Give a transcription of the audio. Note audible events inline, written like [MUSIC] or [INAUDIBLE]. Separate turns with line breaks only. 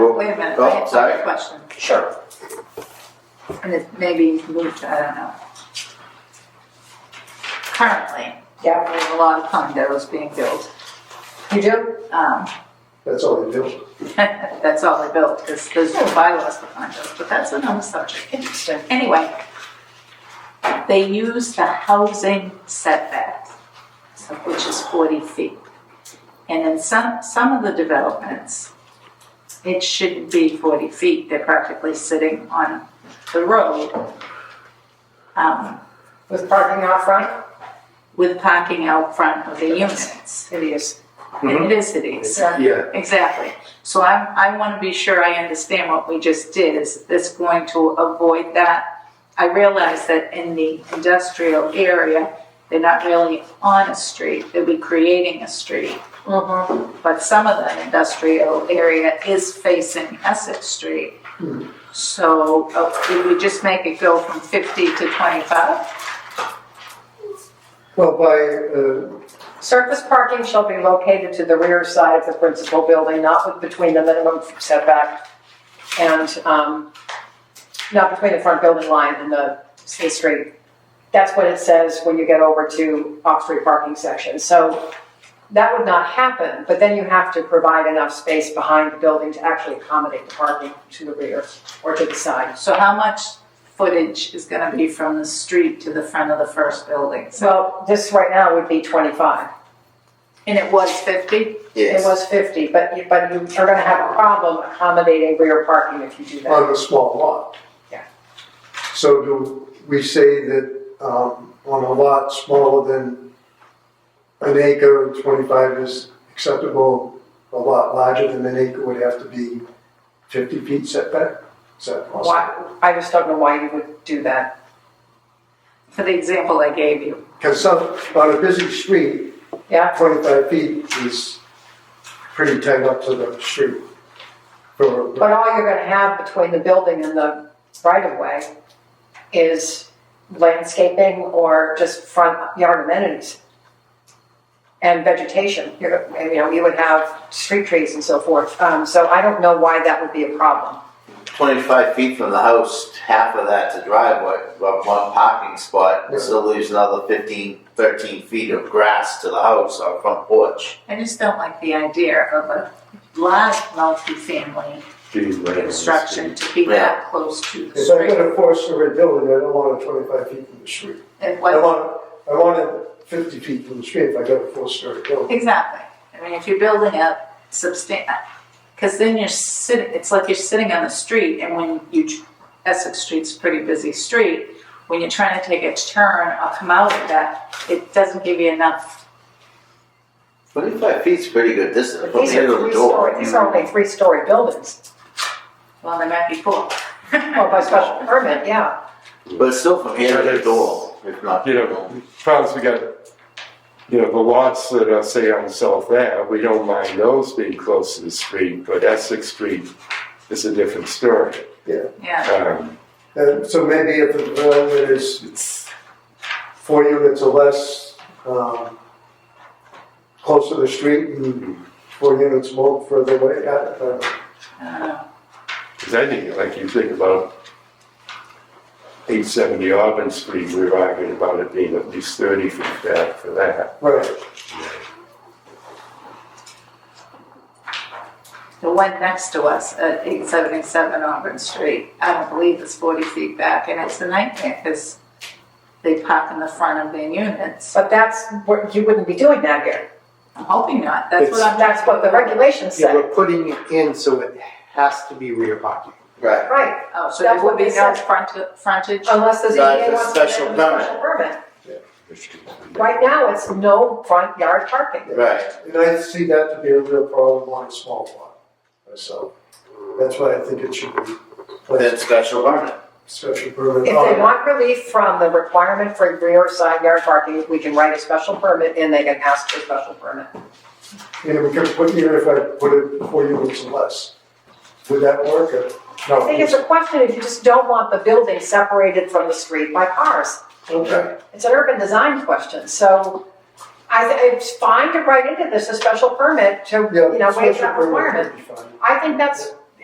Wait a minute, I
Oh,
have a
sorry.
question,
Sure.
and it maybe moved, to- I don't know. Currently,
Yeah,
there's a lot of condos being built.
you do?
Um,
That's all they do.
That's all they built, because there's no bylaws for condos, but that's another subject.
Interesting.
Anyway, they use the housing setback, so- which is 40 feet. And in some, some of the developments, it shouldn't be 40 feet, they're practically sitting on the road um,
With parking out front?
with parking out front of the units.
It is.
And it is hideous.
Mm-hmm.
Yeah.
Exactly. So I'm, I want to be sure I understand what we just did. Is this going to avoid that? I realize that in the industrial area, they're not really on a street, they'll be creating a street.
Mm-hmm.
But some of the industrial area is facing Essex Street. So uh, did we just make it go from 50 to 25?
Well, by, uh,
Surface parking shall be located to the rear side of the principal building, not with- between the minimum setback and, um, not between the front building line and the, the street. That's what it says when you get over to off-street parking section. So that would not happen, but then you have to provide enough space behind the building to actually accommodate the parking to the rear or to the side.
So how much footage is going to be from the street to the front of the first building? So-
Well, this right now would be twenty-five.
And it was 50?
It
Yes.
was 50, but you, but you are gonna have a problem accommodating rear parking if you do that.
on a small lot.
Yeah.
So do we say that, um, on a lot smaller than an acre and twenty-five is acceptable? A lot larger than an acre would have to be fifty feet setback? Is that possible?
Why, I just don't know why you would do that.
for the example I gave you.
Because some, on a busy street,
Yeah,
twenty-five feet is pretty tight up to the street. For,
but all you're gonna have between the building and the right of way is landscaping or just front yard amenities and vegetation. You're, and, you know, you would have street trees and so forth. Um, so I don't know why that would be a problem.
25 feet from the house, half of that's a driveway, but one parking spot, it still leaves another 15, 13 feet of grass to the house or front porch.
I just don't like the idea of a large multifamily construction to be that close to the
If I'm
street.
gonna force a red building, I don't want it twenty-five feet from the street.
It
I
was-
want, I want it fifty feet from the street if I got a four-story building.
exactly. I mean, if you're building up substantial, because then you're sitting, it's like you're sitting on the street and when you, tr- Essex Street's a pretty busy street. When you're trying to take a turn or come out of that, it doesn't give you enough.
25 feet's a pretty good distance
But
from
these
the end
are
of the
three-story,
door.
these are only three-story buildings.
Well, there might be four.
Well, by special permit, yeah.
But still from here to the door, if not.
You know, problems we got, you know, the lots that are, say, on South Ave, we don't mind those being close to the street, but Essex Street is a different story.
[LAUGHS] Yeah,
Um,
And so maybe if the development is
it's,
four units or less, um, close to the street and four units more further away, I- I-
I don't know.
'cause I think, like, you think about eight seventy Auburn Street, we were arguing about it being at least thirty feet back for that.
right.
The one next to us at eight seventy-seven Auburn Street, I don't believe it's forty feet back, and it's a nightmare, because they park in the front of their units.
But that's what, you wouldn't be doing that here.
I'm hoping not, that's what I'm.
That's what the regulations
Yeah,
say.
we're putting it in, so it has to be rear parking.
Right.
Right,
Oh, so there
That's
would
what
be
they
no
said. Um,
front, frontage?
unless the
That's
ZBA
a
wants to
special
give them a special permit. Right now, it's no front yard parking.
Right.
And I see that to be a real problem on a small lot myself. That's why I think it should be
Then
placed
special permit.
special permit. Oh,
If
on
they
it.
want relief from the requirement for rear side yard parking, we can write a special permit and they can ask for a special permit.
You know, we could put, even if I put it four units or less, would that work or?
I think it's a question if you just don't want the building separated from the street by cars.
Okay.
It's an urban design question, so I, thi- it's fine to write into this a special permit to,
Yeah,
you know, waive
special
that
permit
requirement.
would be fine.
I think that's